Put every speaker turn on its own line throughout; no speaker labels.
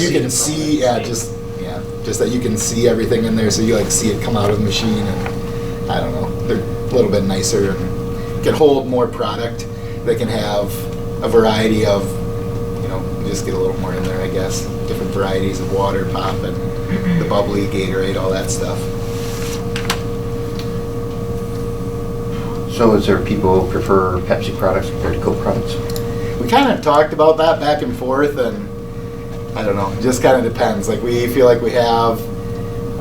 You
See
can
the
see, yeah,
product.
just, yeah, just that you can see everything in there, so you like see it come out of the machine and, I don't know, they're a little bit nicer and can hold more product. They can have a variety of, you know, just get a little more in there, I guess, different varieties of water, pop and the bubbly, Gatorade, all that stuff.
So is there people who prefer Pepsi products compared to Coke products?
we kind of talked about that back and forth and i don't know it just kind of depends like we feel like we have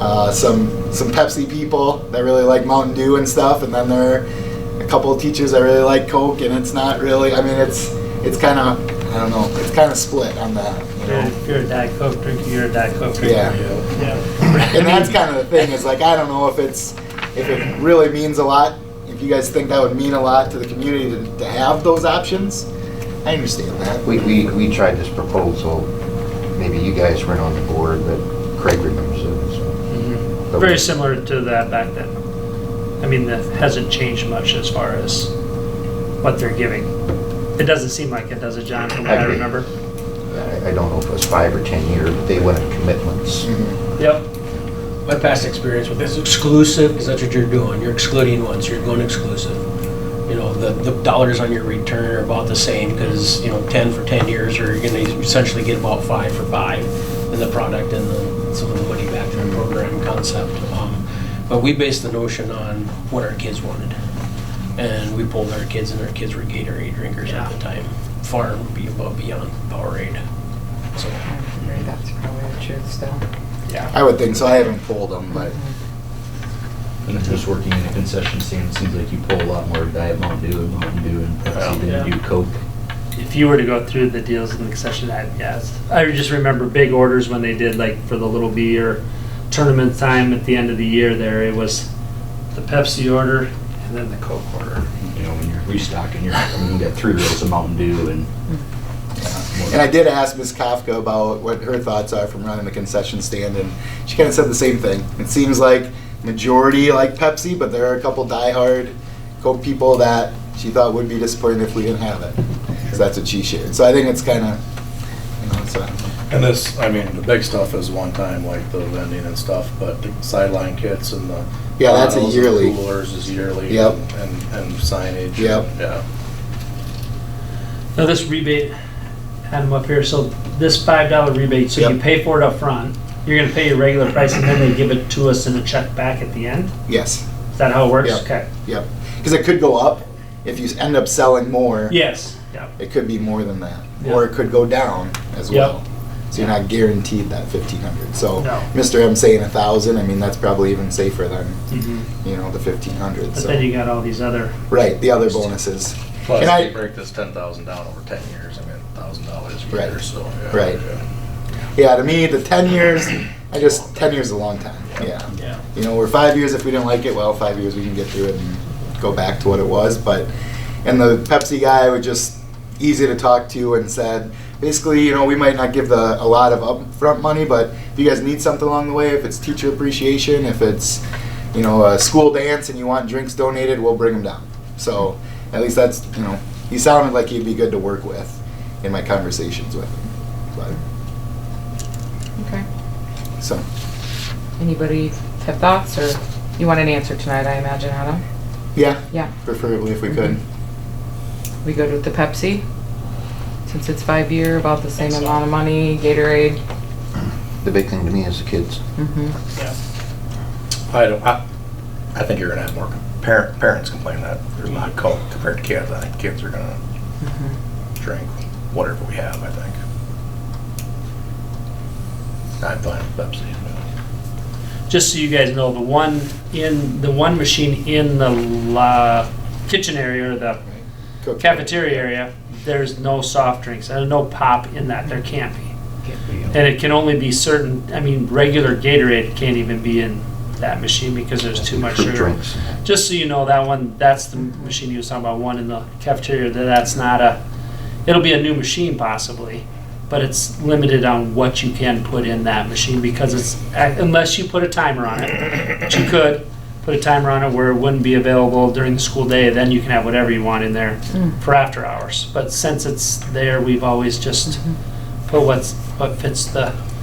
uh, some some pepsi people that really like mountain dew and stuff and then there are a couple of teachers that really like coke and it's not really i mean it's it's kind of i don't know it's kind of split on that you know
If you're a Diet Coke drinker, you're a Diet Coke drinker.
Yeah.
Yeah.
and that's kind of the thing is like i don't know if it's if it really means a lot if you guys think that would mean a lot to the community to, to have those options i understand that
We, we, we tried this proposal, maybe you guys weren't on the board, but Craig remembers it. so.
Mhm. Very similar to that back then. I mean, that hasn't changed much as far as what they're giving. It doesn't seem like it does it, John, from what I
Agree.
remember.
I, I don't know if it was five or 10 years, but they wanted commitments.
Mhm.
Yep.
My past experience with this exclusive, because that's what you're doing, you're excluding ones, you're going exclusive. You know, the, the dollars on your return are about the same, because, you know, ten for ten years, or you're gonna essentially get about five for five in the product and the, some of the money back in the program concept. Um, But we based the notion on what our kids wanted. And we pulled our kids, and our kids were Gatorade drinkers at the time, far be above beyond Powerade, so.
That's probably the truth still.
I would think so. I haven't pulled them, but
And if just working in a concession stand, it seems like you pull a lot more Diet Mountain Dew and Mountain Dew and Pepsi
Yeah.
than you do Coke.
If you were to go through the deals in the concession, I, yes. I just remember big orders when they did, like, for the Little Beer tournament time at the end of the year there, it was the Pepsi order and then the Coke order.
You know, when you're restocking, you're, I mean, you got three rows of Mountain Dew and.
and I did ask Ms. Kafka about what her thoughts are from running the concession stand, and she kind of said the same thing. It seems like majority like Pepsi, but there are a couple diehard Coke people that she thought would be disappointed if we didn't have it. So that's what she shared. So I think it's kind of, you know, it's a,
And this, I mean, the big stuff is one time, like the vending and stuff, but the sideline kits and the.
Yeah, that's a
bottles and
yearly.
Coolers is yearly.
Yep.
And, and signage.
Yep.
Yeah.
Now this rebate, had them up here, so this five dollar rebate, so you
Yep.
pay for it up front. you're gonna pay your regular price and then they give it to us in a check back at the end?
yes,
Is that how it works?
Yep.
Okay,
yep. Because it could go up if you end up selling more.
yes, yeah,
It could be more than that,
Yeah.
or it could go down as
Yep.
well. So you're not guaranteed that fifteen hundred. So
No.
Mr. M saying a thousand, I mean, that's probably even safer than,
Mhm.
you know, the fifteen hundred,
but
so.
then you got all these other,
Right, the other bonuses.
Plus,
And I-
they break this ten thousand down over ten years, I mean, thousand dollars a
Right.
year, so. yeah,
Right.
yeah.
Yeah, to me, the ten years, I just, ten years is a long time, yeah.
yeah.
You know, we're five years, if we didn't like it, well, five years, we can get through it and go back to what it was, but, and the Pepsi guy was just easy to talk to and said, basically, you know, we might not give the, a lot of upfront money, but if you guys need something along the way, if it's teacher appreciation, if it's, you know, a school dance and you want drinks donated, we'll bring them down. So, at least that's, you know, he sounded like he'd be good to work with in my conversations with him,
Okay.
but, so.
Anybody have thoughts or you want an answer tonight, I imagine, Adam?
Yeah,
Yeah.
preferably if we could.
We go with the Pepsi, since it's five year, about the same amount of money, Gatorade.
The big thing to me is the kids.
Mm-hmm.
I don't, I, I think you're gonna have more parent, parents complain that there's not Coke compared to kids. I think kids are gonna
Mm-hmm.
drink whatever we have, I think. I'm fine with Pepsi.
Just so you guys know, the one in, the one machine in the la, kitchen area or the
Cook.
cafeteria area, there's no soft drinks and no pop in that, there can't be. And it can only be certain, I mean, regular Gatorade can't even be in that machine because there's too much
Fruit
sugar.
drinks.
Just so you know, that one, that's the machine you was talking about, one in the cafeteria, that that's not a, it'll be a new machine possibly, but it's limited on what you can put in that machine because it's, unless you put a timer on it, which you could, put a timer on it where it wouldn't be available during the school day, then you can have
Mm-hmm.
whatever you want in there for after hours. But since it's there, we've always just But what's, what fits the